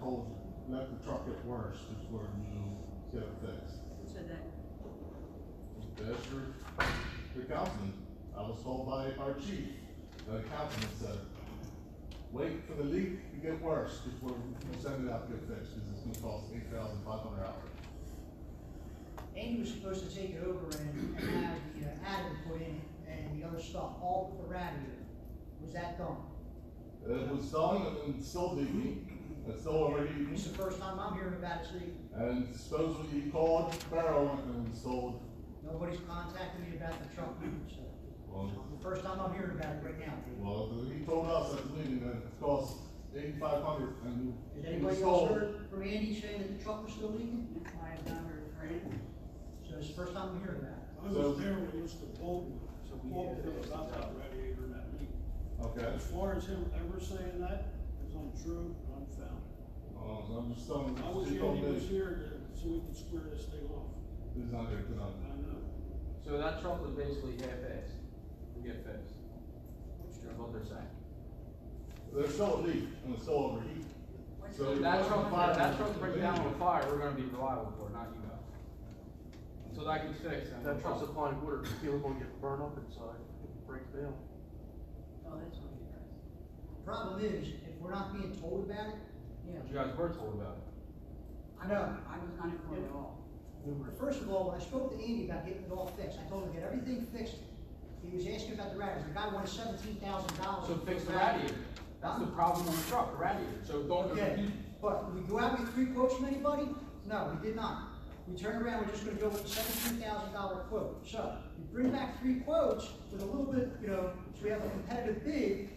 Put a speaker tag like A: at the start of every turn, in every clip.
A: told, let the truck get worse before you get it fixed.
B: So that,
A: That's for the councilman. I was told by our chief, the councilman said, wait for the leak to get worse before we send it out to get fixed, because it's gonna cost eight thousand five hundred dollars.
C: Andy was supposed to take it over and, and have the uh, adder put in it, and the other stuff, all but the radio. Was that done?
A: It was done and it's still leaking, it's still already
C: It's
A: leaking,
C: the first time I'm hearing about it, Steve.
A: and supposedly you called Barrow and installed,
C: Nobody's contacted me about the truck, so,
A: well,
C: the first time I'm hearing about it right now, Dave.
A: well, he told us at the meeting that it cost eighty-five hundred and
C: Did
A: you
C: anybody else
A: installed.
C: heard from Andy saying that the truck was still leaking?
B: I have not heard from him.
C: So it's the first time I'm hearing about it.
D: I was there when Mr. Bolton, so Bolton knew about that radiator and that leak.
A: Okay,
D: As far as him ever saying that, is untrue and unfounded.
A: um, I'm just telling.
D: I was
A: you
D: here,
A: don't
D: he was
A: know.
D: here, to- so we could square this thing off.
A: He's not here
D: I
A: tonight.
D: know.
E: So that truck was basically half-assed, to get fixed, is what they're saying.
A: There's still a leak and it's still overheating.
B: What's
A: So
B: the-
E: If
A: you're
E: that
A: on
E: truck,
A: fire.
E: if that truck breaks down on fire, we're gonna be reliable for it, not you guys. So that gets fixed. and-
F: That truck's applying water, steel gonna get burned up inside, it breaks down.
B: Oh, that's what he does.
C: The Problem is, if we're not being told about it, you know,
E: You guys were told about it.
C: I know.
B: I was not informed at all.
C: First of all, when I spoke to Andy about getting it all fixed, I told him, get everything fixed. He was asking about the radiator, the guy wanted seventeen thousand dollars.
E: So fix the radiator. That's the problem on the truck, the radiator. So don't,
C: Okay,
E: you,
C: but we go out with three quotes from anybody? No, we did not. We turned around, we're just gonna go with the seventeen thousand dollar quote. So, you bring back three quotes with a little bit, you know, so we have a competitive bid.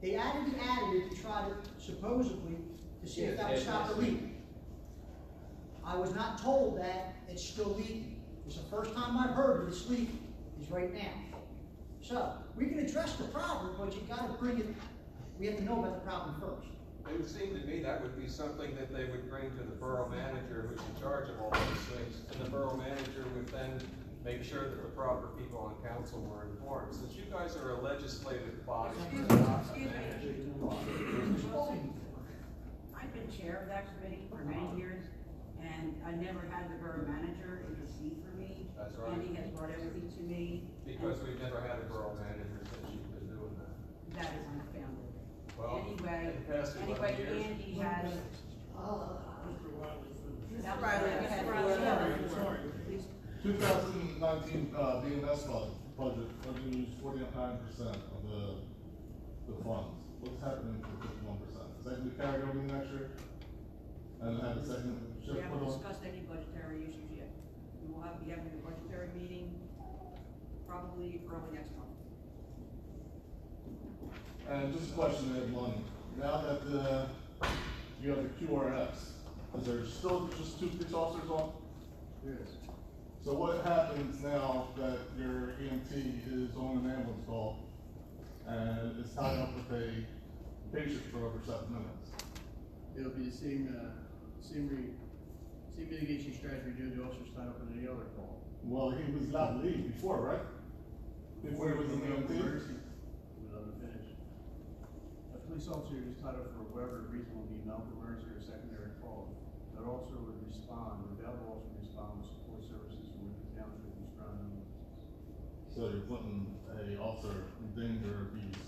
C: They added the additive to try to supposedly, to see if that would stop the leak. I was not told that it's still leaking. It's the first time I've heard that it's leaking, is right now. So, we can address the problem, but you gotta bring it, we have to know about the problem first.
G: It would seem to me that would be something that they would bring to the borough manager who's in charge of all those things. And the borough manager would then make sure that the proper people on council were informed. Since you guys are a legislative body,
B: Excuse
G: you're
B: me,
G: not a
B: excuse me.
G: managing body.
B: Mr. Wilson, I've been chair of that committee for many years, and I never had the borough manager intercede for me.
G: That's right.
B: Andy has brought everything to me.
G: Because we've never had a borough manager since you've been doing that.
B: That is unfounded.
G: Well,
B: Anyway,
G: in the past
B: anyway,
G: 11 years-
B: Andy has,
D: Mr. Wiley.
B: that Riley has.
D: Sorry, sorry.
A: 2019 uh, BMS budget, budget, I mean, used 49% of the, the funds. What's happening to 51%? Is that gonna be carried over the next year? And have a second
B: We
A: shift put
B: haven't
A: on?
B: discussed any budgetary issues yet. We will have, be having a budgetary meeting probably early next month.
A: And just a question, Ed Lund, now that the, you have the QRS, is there still just two police officers on?
F: Yes.
A: So what happens now that your EMT is on an ambulance call and is tied up with a patient for over seven minutes?
H: It'll be the same, uh, same re, same mitigation strategy we do to officers tied up in any other call.
A: Well, he was not leave before, right? Before he was E an EMT?
H: Emergency. Without the finish. A police officer is tied up for whatever reason will be not emergency or secondary call. That officer would respond, the available officer would respond with support services from Lincoln Township and surrounding.
A: So you're putting a officer in danger of abuse.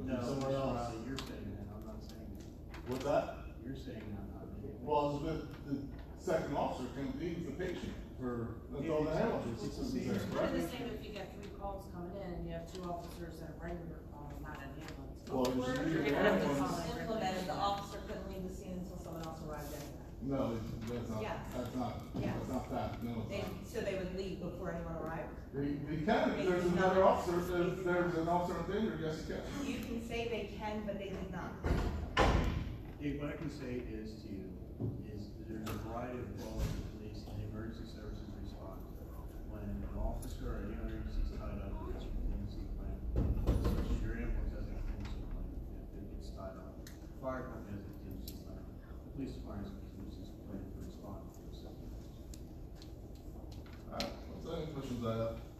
A: Would be
H: No,
A: Somewhere else.
H: You're saying that, I'm not saying that.
A: What's that?
H: You're saying that, not me.
A: Well, it's with the second officer, can leave the patient for, until the ambulance
H: It's the
A: is
H: same.
A: there,
I: It's
A: right?
I: the same if you get three calls coming in, you have two officers that are regular calls, not an ambulance.
A: Well, you should leave the
I: Where
A: ambulance.
I: it's Implemented, the officer couldn't leave the scene until someone else arrived at
A: No, it- that's not,
I: Yeah.
A: that's not,
I: Yeah.
A: that's not that, no,
I: it.
A: it's
I: They,
A: not.
I: so they would leave before anyone arrived.
A: They, they can, if there's
I: It's not-
A: another officer, if there's, there's an officer in danger, yes, you can.
I: You can say they can, but they did not.
H: Dave, what I can say is to you, is that there's a variety of calls the police and the emergency services respond. When an officer or any other agency is tied up, there's a contingency plan, such as your ambulance has a contingency plan, if it gets tied up. Fire company has a contingency plan, the police department has a contingency plan for responding to a situation.
A: Alright, what's any questions I have?